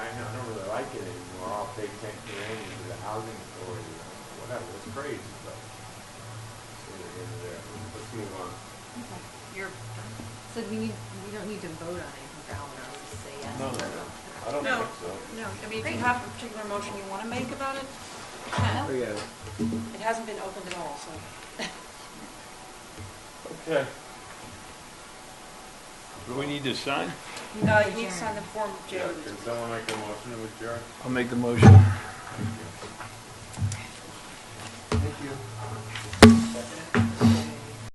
if they can't do anything to the housing authority or whatever, it's crazy, but. So we're into there, let's move on. You're, so we need, we don't need to vote on anything for Eleanor, we'll just say yes. No, no, no, I don't No, think so. no, I mean, if you have a particular motion you want to make about it, you Oh, can. yeah. It hasn't been opened at all, so. Okay. Do we need to sign? We Uh, to you need to sign the adjourn. form, Yeah, Jared. can someone make a motion to adjourn? I'll make the motion. Thank you. Thank you.